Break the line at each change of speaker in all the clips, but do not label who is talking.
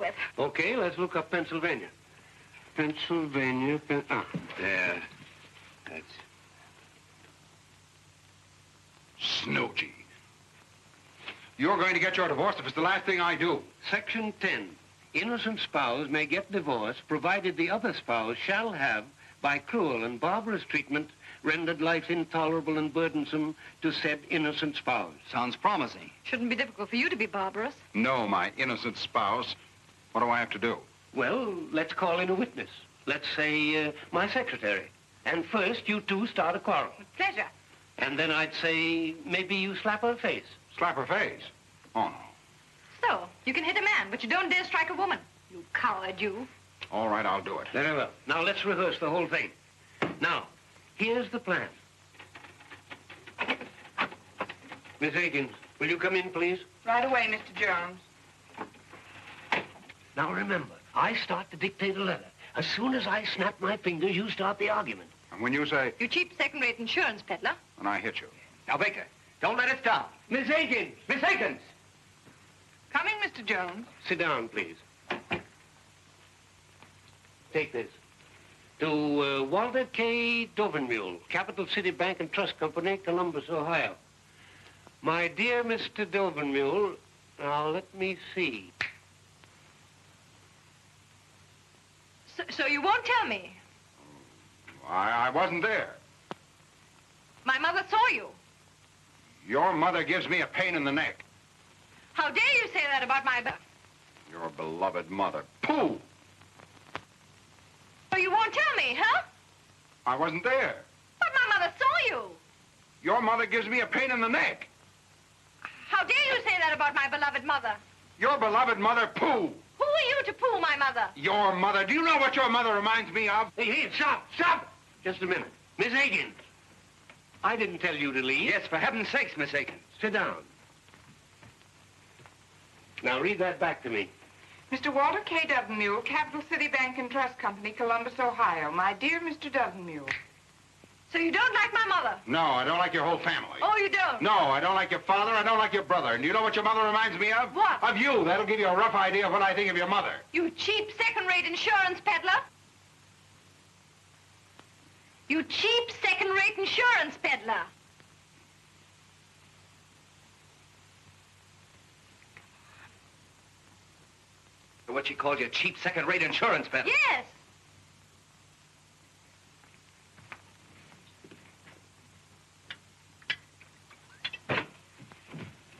it.
Okay, let's look up Pennsylvania. Pennsylvania, Pen- ah, there. That's
Snooty. You're going to get your divorce if it's the last thing I do.
Section 10. Innocent spouse may get divorced provided the other spouse shall have, by cruel and barbarous treatment, rendered life intolerable and burdensome to said innocent spouse.
Sounds promising.
Shouldn't be difficult for you to be barbarous.
No, my innocent spouse. What do I have to do?
Well, let's call in a witness. Let's say, uh, my secretary. And first, you two start a quarrel.
With pleasure.
And then I'd say, maybe you slap her face.
Slap her face. Oh, no.
So, you can hit a man, but you don't dare strike a woman. You coward, you.
All right, I'll do it.
Very well. Now, let's rehearse the whole thing. Now, here's the plan. Miss Akins, will you come in, please?
Right away, Mr. Jones.
Now remember, I start to dictate a letter. As soon as I snap my fingers, you start the argument.
And when you say,
You cheap second-rate insurance peddler.
and I hit you.
Now, Baker, don't let it stop.
Miss Akins!
Miss Higgins!
Coming, Mr. Jones.
Sit down, please. Take this. To uh, Walter K. Dovenmule, Capital City Bank and Trust Company, Columbus, Ohio. My dear Mr. Dovenmule, now let me see.
So, so you won't tell me.
I, I wasn't there.
My mother saw you.
Your mother gives me a pain in the neck.
How dare you say that about my... ba-
Your beloved mother. Pooh!
So you won't tell me, huh?
I wasn't there.
But my mother saw you.
Your mother gives me a pain in the neck.
How dare you say that about my beloved mother?
Your beloved mother. Pooh!
Who are you to poo my mother?
Your mother. Do you know what your mother reminds me of?
Hey, hey, stop, stop! Just a minute. Miss Akins, I didn't tell you to leave.
Yes, for heaven's sakes, Miss Higgins.
Sit down. Now read that back to me.
Mr. Walter K. Dovenmule, Capital City Bank and Trust Company, Columbus, Ohio. My dear Mr. Dovenmule.
So you don't like my mother?
No, I don't like your whole family.
Oh, you don't?
No, I don't like your father. I don't like your brother. And you know what your mother reminds me of?
What?
Of you. That'll give you a rough idea of what I think of your mother.
You cheap second-rate insurance peddler. You cheap second-rate insurance peddler.
What she called you, cheap second-rate insurance peddler.
Yes.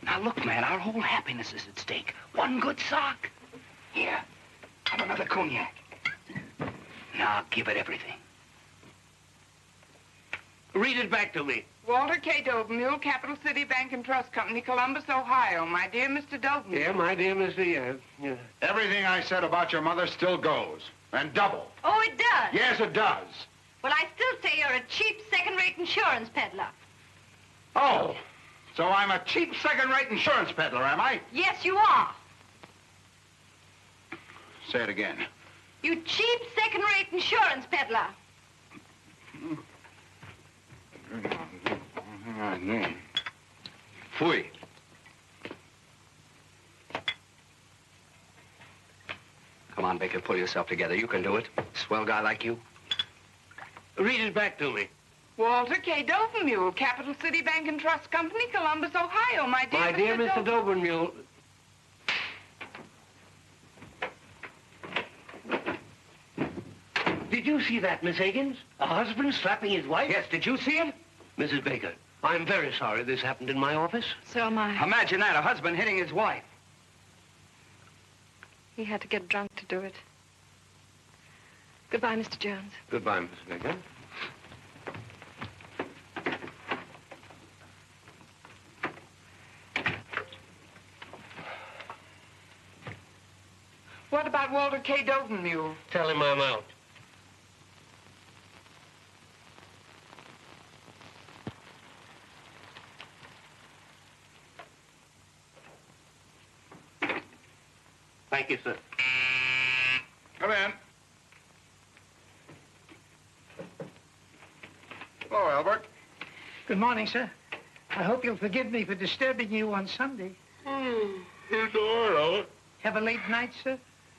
Now, look, man, our whole happiness is at stake. One good sock. Here, have another cognac. Now, give it everything.
Read it back to me.
Walter K. Dovenmule, Capital City Bank and Trust Company, Columbus, Ohio. My dear Mr. Dovenmule.
Yeah, my dear Mr. Yeah, yeah.
Everything I said about your mother still goes. And double.
Oh, it does.
Yes, it does.
Well, I still say you're a cheap second-rate insurance peddler.
Oh, so I'm a cheap second-rate insurance peddler, am I?
Yes, you are.
Say it again.
You cheap second-rate insurance peddler.
Fui.
Come on, Baker, pull yourself together. You can do it. Swell guy like you.
Read it back to me.
Walter K. Dovenmule, Capital City Bank and Trust Company, Columbus, Ohio. My dear
My
Mr.
dear Mr.
Dovenmule.
Dobermule, Did you see that, Miss Higgins? A husband slapping his wife?
Yes, did you see it?
Mrs. Baker, I'm very sorry this happened in my office.
So am I.
Imagine that, a husband hitting his wife.
He had to get drunk to do it. Goodbye, Mr. Jones.
Goodbye, Mrs. Baker.
What about Walter K. Dovenmule?
Tell him I'm out. Thank you, sir.
Come in. Hello, Albert.
Good morning, sir. I hope you'll forgive me for disturbing you on Sunday.
Here's the door, Albert.
Have a late night, sir?